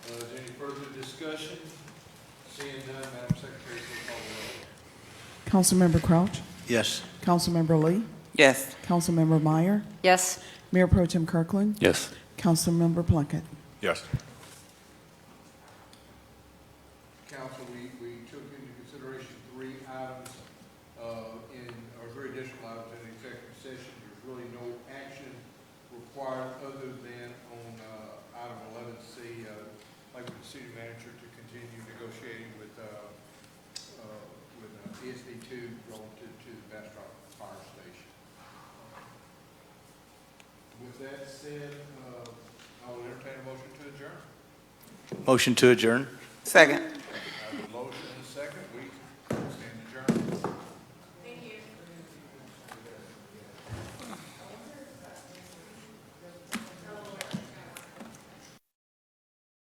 Uh, discussion? Seeing none, Madam Secretary, please call the roll. Councilmember Crouch, Yes. Councilmember Lee, Yes. Councilmember Meyer, Yes. Mayor Pro Tem Kirkland, Yes. Councilmember Plunkett. Yes. Council, we, we took into consideration three items, uh, in, or three additional items in executive session. There's really no action required other than on, uh, item eleven C, uh, like with the city manager to continue negotiating with, uh, uh, with uh, ESD two relative to the Bastrop Fire Station. With that said, uh, I will entertain a motion to adjourn. Motion to adjourn? Second.